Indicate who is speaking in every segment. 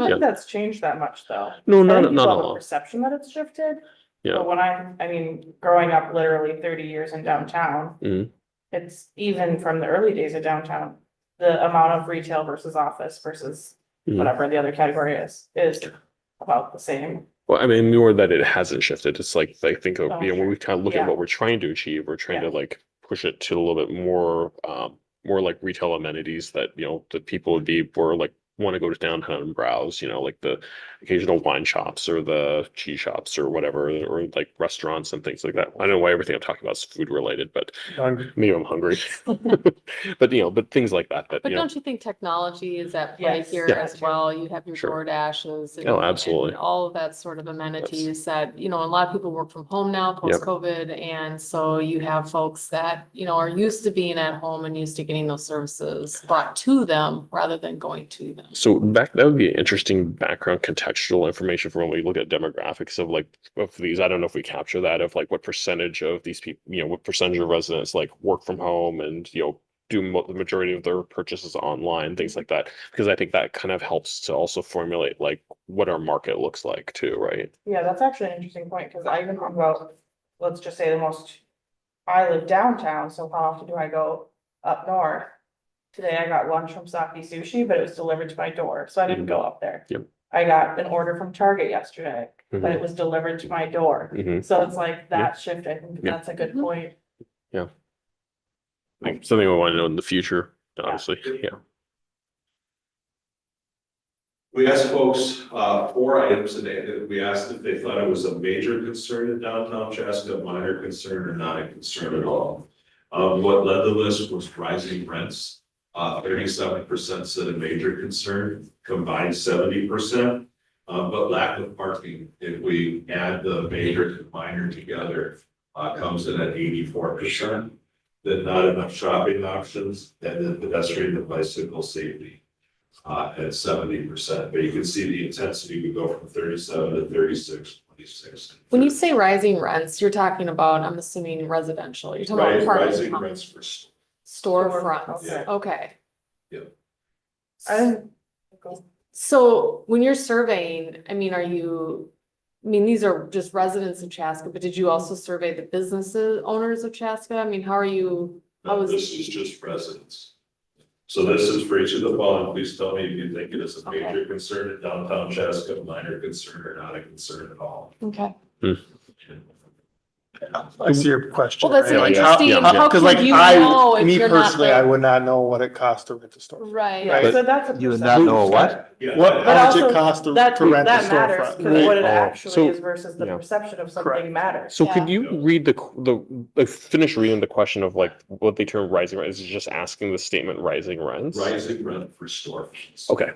Speaker 1: I
Speaker 2: Yeah.
Speaker 1: don't think that's changed that much, though.
Speaker 2: No,
Speaker 1: I
Speaker 2: not,
Speaker 1: think
Speaker 2: not
Speaker 1: people
Speaker 2: a
Speaker 1: have
Speaker 2: lot.
Speaker 1: Perception that it's shifted.
Speaker 2: Yeah.
Speaker 1: But when I, I mean, growing up literally thirty years in downtown.
Speaker 2: Mhm.
Speaker 1: It's even from the early days of downtown, the amount of retail versus office versus
Speaker 2: Mhm.
Speaker 1: whatever the other category is, is about the same.
Speaker 2: Well, I mean, more that it hasn't shifted. It's like, I think, uh, you know,
Speaker 1: Oh,
Speaker 2: when we kind of look
Speaker 1: Yeah.
Speaker 2: at what we're trying to achieve, we're trying to
Speaker 1: Yeah.
Speaker 2: like push it to a little bit more, um, more like retail amenities that, you know, that people would be, were like, want to go to downtown and browse, you know, like the occasional wine shops or the cheese shops or whatever, or like restaurants and things like that. I don't know why everything I'm talking about is food related, but maybe I'm hungry. But, you know, but things like that, that,
Speaker 3: But
Speaker 2: you know,
Speaker 3: don't you think technology is at play
Speaker 1: Yes.
Speaker 3: here
Speaker 1: Yeah.
Speaker 3: as well? You have your
Speaker 2: Sure.
Speaker 3: DoorDashes. and-
Speaker 2: Oh, absolutely.
Speaker 3: and All of that sort of amenities that, you know, a lot of people work from home now, post-COVID. And so you have folks that, you know, are used to being at home and used to getting those services brought to them rather than going to them.
Speaker 2: So back, that would be interesting background contextual information for when we look at demographics of like, of these, I don't know if we capture that of like what percentage of these people, you know, what percentage of residents like work from home and, you know, do mo- the majority of their purchases online, things like that. Because I think that kind of helps to also formulate like what our market looks like too, right?
Speaker 1: Yeah, that's actually an interesting point, because I even think about, let's just say the most, I live downtown, so how often do I go up north? Today I got lunch from Saki Sushi, but it was delivered to my door, so I didn't go up there.
Speaker 2: Yep.
Speaker 1: I got an order from Target yesterday, but
Speaker 2: Mhm.
Speaker 1: it was delivered to my door.
Speaker 2: Mhm.
Speaker 1: So it's like that shift, I think
Speaker 2: Yeah.
Speaker 1: that's a good point.
Speaker 2: Like something we want to know in the future, obviously, yeah.
Speaker 4: We asked folks, uh, four items today, that we asked if they thought it was a major concern in downtown Chaska, a minor concern, or not a concern at all. Um, what led the list was rising rents, uh, thirty-seven percent said a major concern, combined seventy percent. Uh, but lack of parking, if we add the major and minor together, uh, comes in at eighty-four percent. Then not enough shopping options, and then pedestrian and bicycle safety uh, at seventy percent, but you can see the intensity would go from thirty-seven to 36, 26.
Speaker 3: When you say rising rents, you're talking about, I'm assuming residential, you're talking
Speaker 4: Ri-
Speaker 3: about
Speaker 4: Rising
Speaker 3: apartment
Speaker 4: rents for, s-
Speaker 3: storefronts.
Speaker 1: Yeah.
Speaker 3: Okay.
Speaker 4: Yep.
Speaker 1: I didn't.
Speaker 3: So when you're surveying, I mean, are you, I mean, these are just residents of Chaska, but did you also survey the businesses owners of Chaska? I mean, how are you? I
Speaker 4: no,
Speaker 3: was-
Speaker 4: this is just residents. So this is for each of the following, please tell me if you think it is a
Speaker 3: Okay.
Speaker 4: major concern in downtown Chaska, minor concern or not a concern at all.
Speaker 3: Okay.
Speaker 5: I see your question.
Speaker 3: Well, that's an
Speaker 2: Yeah,
Speaker 5: right?
Speaker 2: yeah,
Speaker 3: interesting,
Speaker 2: yeah,
Speaker 3: how
Speaker 5: Cause
Speaker 3: could
Speaker 5: like
Speaker 3: you know
Speaker 5: I,
Speaker 3: if
Speaker 5: me
Speaker 3: you're not
Speaker 5: personally, I
Speaker 3: there?
Speaker 5: would not know what it costs to rent a storefront.
Speaker 3: Right,
Speaker 5: Right.
Speaker 1: Yeah, so that's. a
Speaker 6: You would not
Speaker 1: perception.
Speaker 6: know what?
Speaker 4: Yeah.
Speaker 5: What,
Speaker 1: But
Speaker 5: how much it
Speaker 1: also,
Speaker 5: costs to
Speaker 1: That,
Speaker 5: to rent a
Speaker 1: that matters, because what
Speaker 5: storefront?
Speaker 1: it
Speaker 2: Oh,
Speaker 1: actually
Speaker 2: so-
Speaker 1: is versus the
Speaker 2: yeah.
Speaker 1: perception of
Speaker 5: Correct.
Speaker 1: something matters.
Speaker 2: So could
Speaker 3: Yeah.
Speaker 2: you read the, qu- the, like, finish reading the question of like what they term rising rents, is it just asking the statement rising rents?
Speaker 4: Rising rent for storefronts.
Speaker 2: Okay,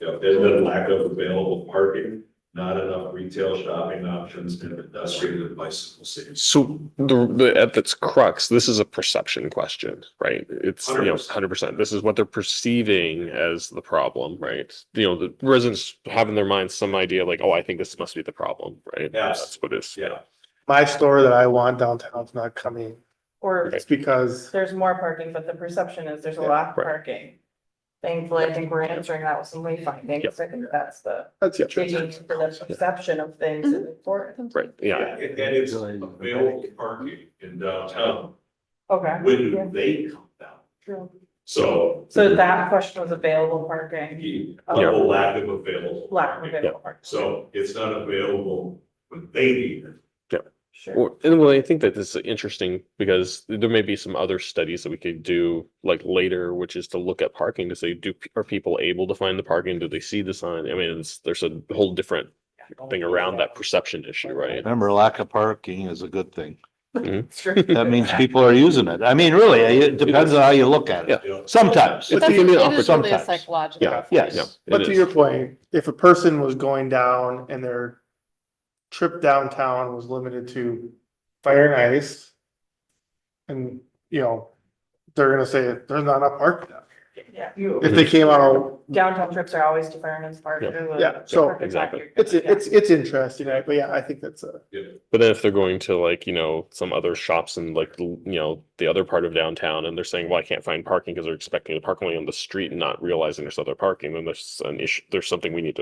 Speaker 4: Yeah, there's been lack of available parking, not enough retail shopping options, and pedestrian and bicycle safety.
Speaker 2: So the, the, at its crux, this is a perception question, right? It's, you know,
Speaker 4: 100%.
Speaker 2: hundred percent. This is what they're perceiving as the problem, right? You know, the residents have in their minds some idea like, oh, I think this must be the problem, right?
Speaker 4: Yes.
Speaker 2: That's what it is.
Speaker 4: Yeah.
Speaker 5: My store that I want downtown's not coming.
Speaker 1: Or
Speaker 5: It's because,
Speaker 1: there's more parking, but the perception is there's a
Speaker 5: Yeah,
Speaker 1: lack of
Speaker 2: right.
Speaker 1: parking. Thankfully, I think we're answering that with some lead
Speaker 2: Yep.
Speaker 1: findings. I think that's the
Speaker 5: that's the
Speaker 1: digging for the perception of things is important.
Speaker 2: Right, yeah,
Speaker 4: And and it's available parking in downtown
Speaker 1: Okay. Yeah.
Speaker 4: when they come down.
Speaker 1: True.
Speaker 4: So
Speaker 1: So that question was available parking,
Speaker 4: the the lack of available
Speaker 1: lack of
Speaker 4: parking.
Speaker 1: available parking.
Speaker 4: So it's not available when they need it.
Speaker 1: Sure.
Speaker 2: Or, and well, I think that this is interesting because there may be some other studies that we could do like later, which is to look at parking to say, do, are people able to find the parking? Do they see the sign? I mean, it's, there's a whole different thing around that perception issue, right?
Speaker 6: Remember, lack of parking is a good thing.
Speaker 1: Sure.
Speaker 6: That means people are using it. I mean, really, it depends on how you look at it.
Speaker 4: you know?
Speaker 6: Sometimes.
Speaker 2: It's
Speaker 3: That's-
Speaker 2: giving an
Speaker 3: it is really a
Speaker 6: opportunity.
Speaker 3: psychological.
Speaker 2: Yeah,
Speaker 6: yes.
Speaker 2: Yeah. it
Speaker 5: But to
Speaker 2: is.
Speaker 5: your point, if a person was going down and their trip downtown was limited to fire and ice. And, you know, they're gonna say, there's not enough parking.
Speaker 1: Yeah.
Speaker 5: If they came out on
Speaker 1: Downtown trips are always to Fairness Park.
Speaker 2: Yeah.
Speaker 1: There's a-
Speaker 5: Yeah, so-
Speaker 1: parking lot
Speaker 2: Exactly.
Speaker 1: you're gonna-
Speaker 5: It's, it's, it's interesting, right? but yeah, I think that's a,
Speaker 2: But then if they're going to like, you know, some other shops in like, l- you know, the other part of downtown and they're saying, well, I can't find parking because they're expecting to park only on the street and not realizing there's other parking, then there's an issue, there's something we need to